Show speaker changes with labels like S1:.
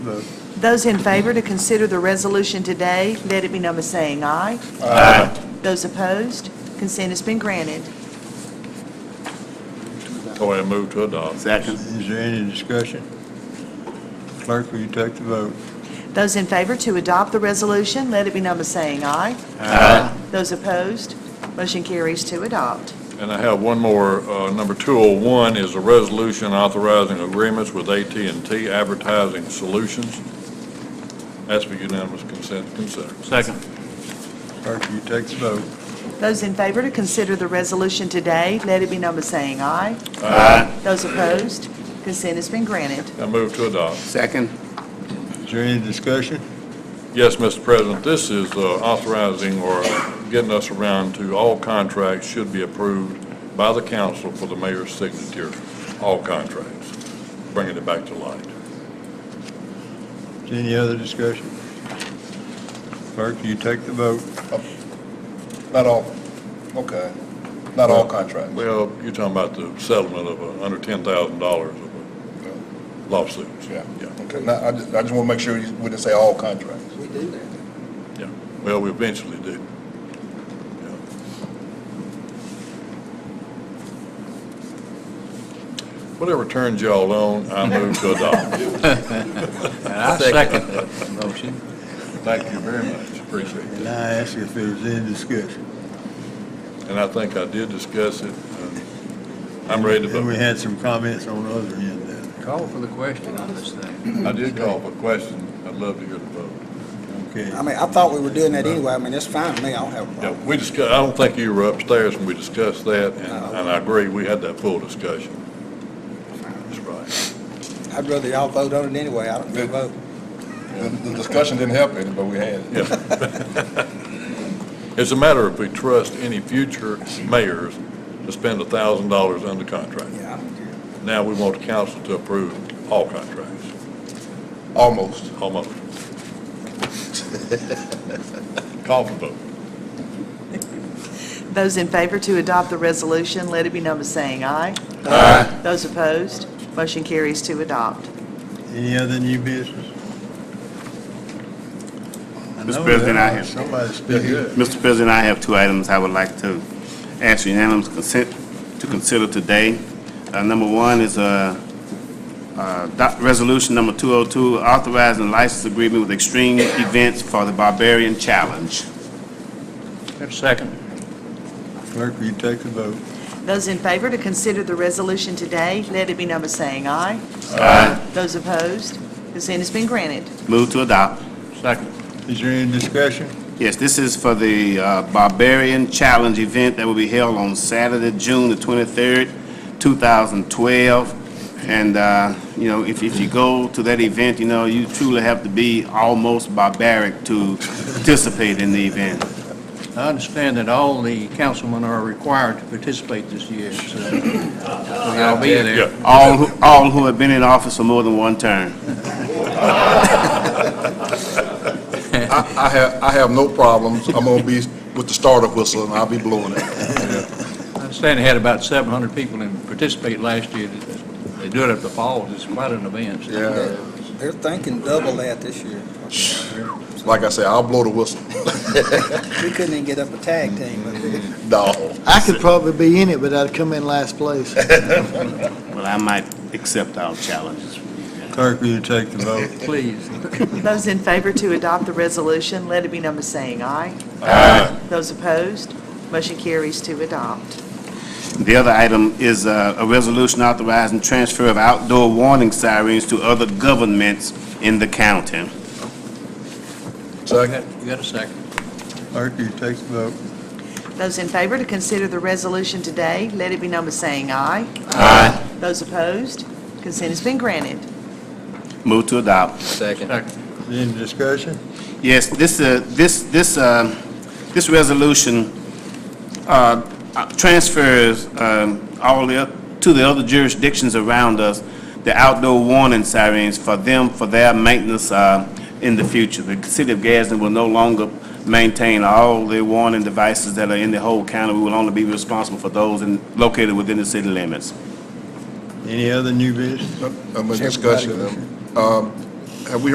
S1: Vote.
S2: Those in favor to consider the resolution today, let it be known by saying aye. Those opposed, consent has been granted.
S3: Go ahead and move to adopt.
S4: Second.
S1: Is there any discussion? Clerk, will you take the vote?
S2: Those in favor to adopt the resolution, let it be known by saying aye. Those opposed, motion carries to adopt.
S3: And I have one more. Uh, Number 201 is a resolution authorizing agreements with at and t Advertising Solutions. That's for unanimous consent to consider.
S4: Second.
S1: Clerk, will you take the vote?
S2: Those in favor to consider the resolution today, let it be known by saying aye.
S4: Aye.
S2: Those opposed, consent has been granted.
S3: I move to adopt.
S4: Second.
S1: Is there any discussion?
S3: Yes, Mr. President, this is uh, authorizing or getting us around to all contracts should be approved by the council for the mayor's signature, all contracts, bringing it back to light.
S1: Is there Any other discussion? Clerk, will you take the vote?
S5: Not all, okay, not all contracts.
S3: Well, you're talking about the settlement of uh, under $10,000 of a lawsuit.
S5: Yeah,
S3: Yeah.
S5: okay, now, I just, I just want to make sure you- we didn't say all contracts.
S3: Yeah, well, we eventually do. Whatever turns y'all on, I move to adopt.
S4: And I second that motion.
S3: Thank you very much, appreciate
S1: And
S3: that.
S1: I ask if there's any discussion.
S3: And I think I did discuss it, and I'm ready to
S1: And we
S3: vote.
S1: had some comments on the other end there.
S4: Call for the question on this thing.
S3: I did call for a question, I'd love to hear the vote.
S1: Okay.
S6: I mean, I thought we were doing that anyway. I mean, that's fine with me. I don't have a
S3: Yeah,
S6: problem.
S3: we discussed, I don't think you were upstairs when we discussed that, and and I agree, we had that full discussion. That's right.
S6: I'd rather y'all vote on it anyway. I don't give a vote.
S5: The the discussion didn't help any, but we had it.
S3: It's a matter of we trust any future mayors to spend $1,000 under contract.
S6: Yeah, I don't care.
S3: Now we want the council to approve all contracts,
S5: Almost.
S3: almost. Call for vote.
S2: Those in favor to adopt the resolution, let it be known by saying aye. Those opposed, motion carries to adopt.
S1: Any other new business? I know
S7: President, I have-
S1: Somebody speak up.
S7: Mr. President, I have two items I would like to ask unanimous consent to consider today. Uh, Number one is uh, uh, doc- Resolution Number 202, authorizing license agreement with Extreme Events for the Barbarian Challenge.
S4: Second.
S1: Clerk, will you take the vote?
S2: Those in favor to consider the resolution today, let it be known by saying aye. Those opposed, consent has been granted.
S7: Move to adopt.
S4: Second.
S1: Is there any discussion?
S7: Yes, this is for the uh, Barbarian Challenge event that will be held on Saturday, June the 23rd, 2012. And, uh, you know, if if you go to that event, you know, you truly have to be almost barbaric to participate in the event.
S4: I understand that all the councilmen are required to participate this year, so I'll be there.
S7: All who all who have been in office for more than one term.
S5: I, I have, I have no problems. I'm gonna be with the starter whistle and I'll be blowing it.
S4: I understand they had about 700 people in participate last year. They do it at the falls. It's quite an event.
S5: Yeah,
S6: They're thinking double that this year.
S5: like I say, I'll blow the whistle.
S6: We couldn't even get up a tag team.
S5: No.
S8: I could probably be in it, but I'd come in last place.
S7: Well, I might accept our challenges.
S1: Clerk, will you take the vote?
S4: Please.
S2: Those in favor to adopt the resolution, let it be known by saying aye. Aye. Those opposed, motion carries to adopt.
S7: The other item is uh, a resolution authorizing transfer of outdoor warning sirens to other governments in the county.
S4: You
S5: Second.
S4: got you got a second.
S1: Clerk, will you take the vote?
S2: Those in favor to consider the resolution today, let it be known by saying aye. Aye. Those opposed, consent has been granted.
S7: Move to adopt.
S4: Second.
S1: Is there Any discussion?
S7: Yes, this, uh, this, this, um, this resolution uh, uh, transfers um, all the, oth- to the other jurisdictions around us, the outdoor warning sirens for them, for their maintenance uh, in the future. The city of Gadsden will no longer maintain all the warning devices that are in the whole county. We will only be responsible for those in- located within the city limits.
S1: Any other new business?
S5: I'm in discussion. Um,